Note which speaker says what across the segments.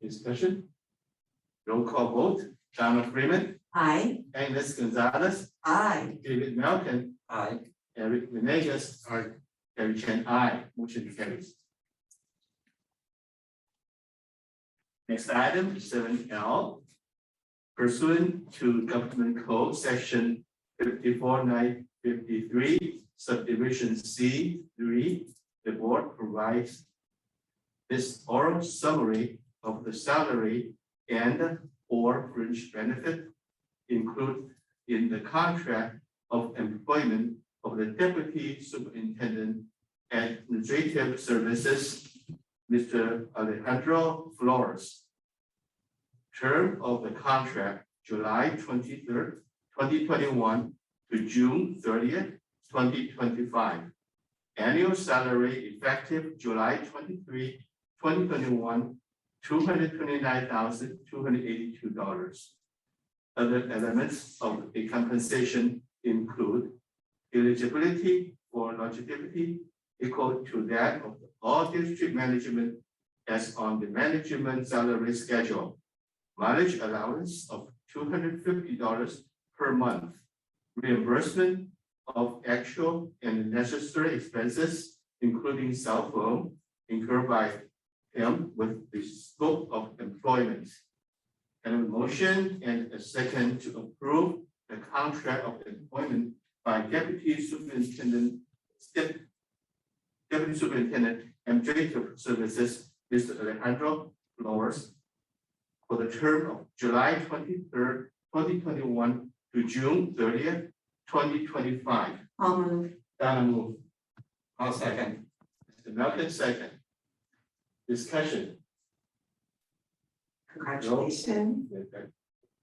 Speaker 1: Any Discussion? Roll call vote, Donald Freeman,
Speaker 2: I,
Speaker 1: Agnes Gonzalez,
Speaker 2: I,
Speaker 1: David Malcolm,
Speaker 3: Aye.
Speaker 1: Eric Menegas.
Speaker 3: Aye.
Speaker 1: Harry Chen, I, motion carries. Next item, seven L. Pursuant to Government Code, section fifty-four nine fifty-three, subdivision C three, the board provides this oral summary of the salary and or fringe benefit included in the contract of employment of the Deputy Superintendent Administrative Services, Mr. Alejandro Flores. Term of the contract, July twenty-third, twenty twenty-one to June thirtieth, twenty twenty-five. Annual salary effective July 23, 2021, two hundred twenty-nine thousand, two hundred eighty-two dollars. Other elements of the compensation include eligibility for longevity equal to that of all district management as on the management salary schedule. Mileage allowance of two hundred fifty dollars per month. Reimbursement of actual and necessary expenses, including cell phone incurred by him with the scope of employment. And a motion and a second to approve the contract of employment by Deputy Superintendent, Step, Deputy Superintendent Administrative Services, Mr. Alejandro Flores, for the term of July twenty-third, twenty twenty-one to June thirtieth, twenty twenty-five.
Speaker 2: I'll move,
Speaker 1: Donna move.
Speaker 3: I'll second.
Speaker 1: Mr. Malcolm second. Discussion,
Speaker 2: congratulations,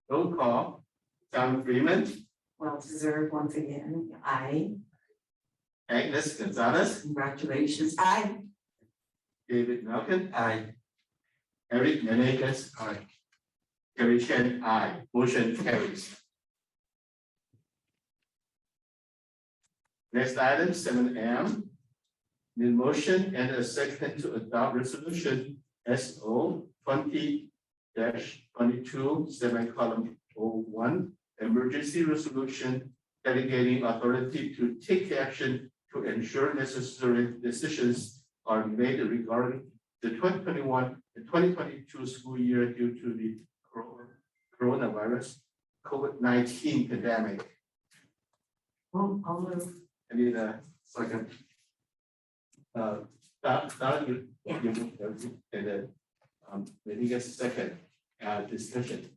Speaker 1: roll call, Donna Freeman,
Speaker 2: well deserved once again, I,
Speaker 1: Agnes Gonzalez,
Speaker 2: congratulations, I,
Speaker 1: David Malcolm,
Speaker 3: Aye.
Speaker 1: Eric Menegas,
Speaker 3: Aye.
Speaker 1: Gary Chen, I, motion carries. Next item, seven M. The motion and a second to adopt resolution S O twenty twenty-two, seven column O one. Emergency resolution delegating authority to take action to ensure necessary decisions are made regarding the twenty twenty-one, the twenty twenty-two school year due to the coro- coronavirus, COVID nineteen pandemic.
Speaker 2: I'll I'll move,
Speaker 1: I need a second. Uh, Don, Don, you,
Speaker 2: Yeah.
Speaker 1: you, move everything, and then, um, let me get a second, uh, discussion.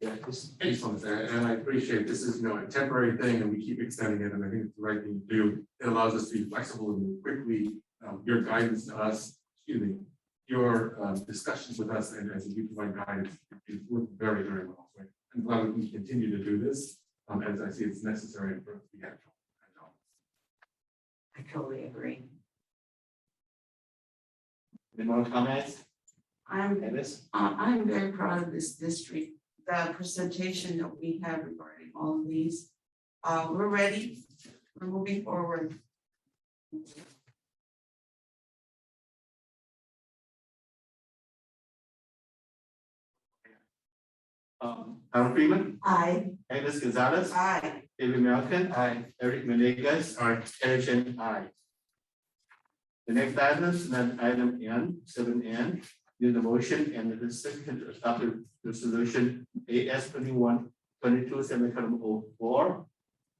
Speaker 1: Yeah, this,
Speaker 4: Excellent, and and I appreciate this is, you know, a temporary thing and we keep extending it and I think it's the right thing to do. It allows us to be flexible and move quickly, um, your guidance to us, excuse me, your um, discussions with us and as you provide guidance, it worked very, very well. So I'm glad we can continue to do this, um, as I see it's necessary for the actual.
Speaker 2: I totally agree.
Speaker 1: any more comments,
Speaker 2: I'm,
Speaker 1: Dennis?
Speaker 2: I- I'm very proud of this district, the presentation that we have regarding all of these. Uh, we're ready, we're moving forward.
Speaker 1: Um, Don Freeman,
Speaker 2: I,
Speaker 1: Agnes Gonzalez,
Speaker 2: I,
Speaker 1: David Malcolm,
Speaker 3: Aye.
Speaker 1: Eric Menegas,
Speaker 4: Aye.
Speaker 1: Eric Chen, I. The next item is then item N, seven N, in the motion and the second to adopt the resolution AS twenty-one, twenty-two, semicolon oh four.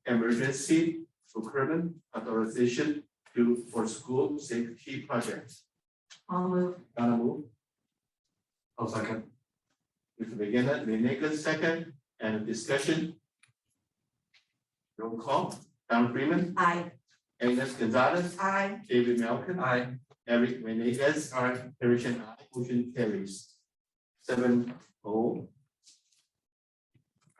Speaker 1: Emergency procurement authorization to for school safety projects.
Speaker 2: I'll move,
Speaker 1: Donna move,
Speaker 4: I'll second.
Speaker 1: Mr. Beginner, Menegas second, and discussion. Roll call, Don Freeman,
Speaker 2: I,
Speaker 1: Agnes Gonzalez,
Speaker 2: I,
Speaker 1: David Malcolm.
Speaker 3: Aye.
Speaker 1: Eric Menegas,
Speaker 4: Aye.
Speaker 1: Persian I, motion carries. Seven O.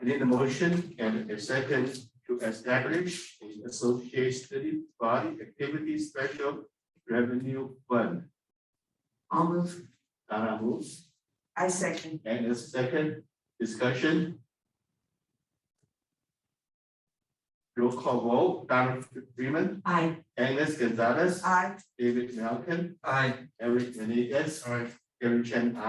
Speaker 1: I need a motion and a second to establish an associate study body activity special revenue fund.
Speaker 2: I'll move,
Speaker 1: Donna moves,
Speaker 2: I second.
Speaker 1: and a second discussion. Roll call vote, Donna Freeman,
Speaker 2: I,
Speaker 1: Agnes Gonzalez,
Speaker 2: I.
Speaker 1: David Malcolm,
Speaker 3: Aye.
Speaker 1: Eric Menegas,
Speaker 4: Aye.
Speaker 1: Gary Chen, I.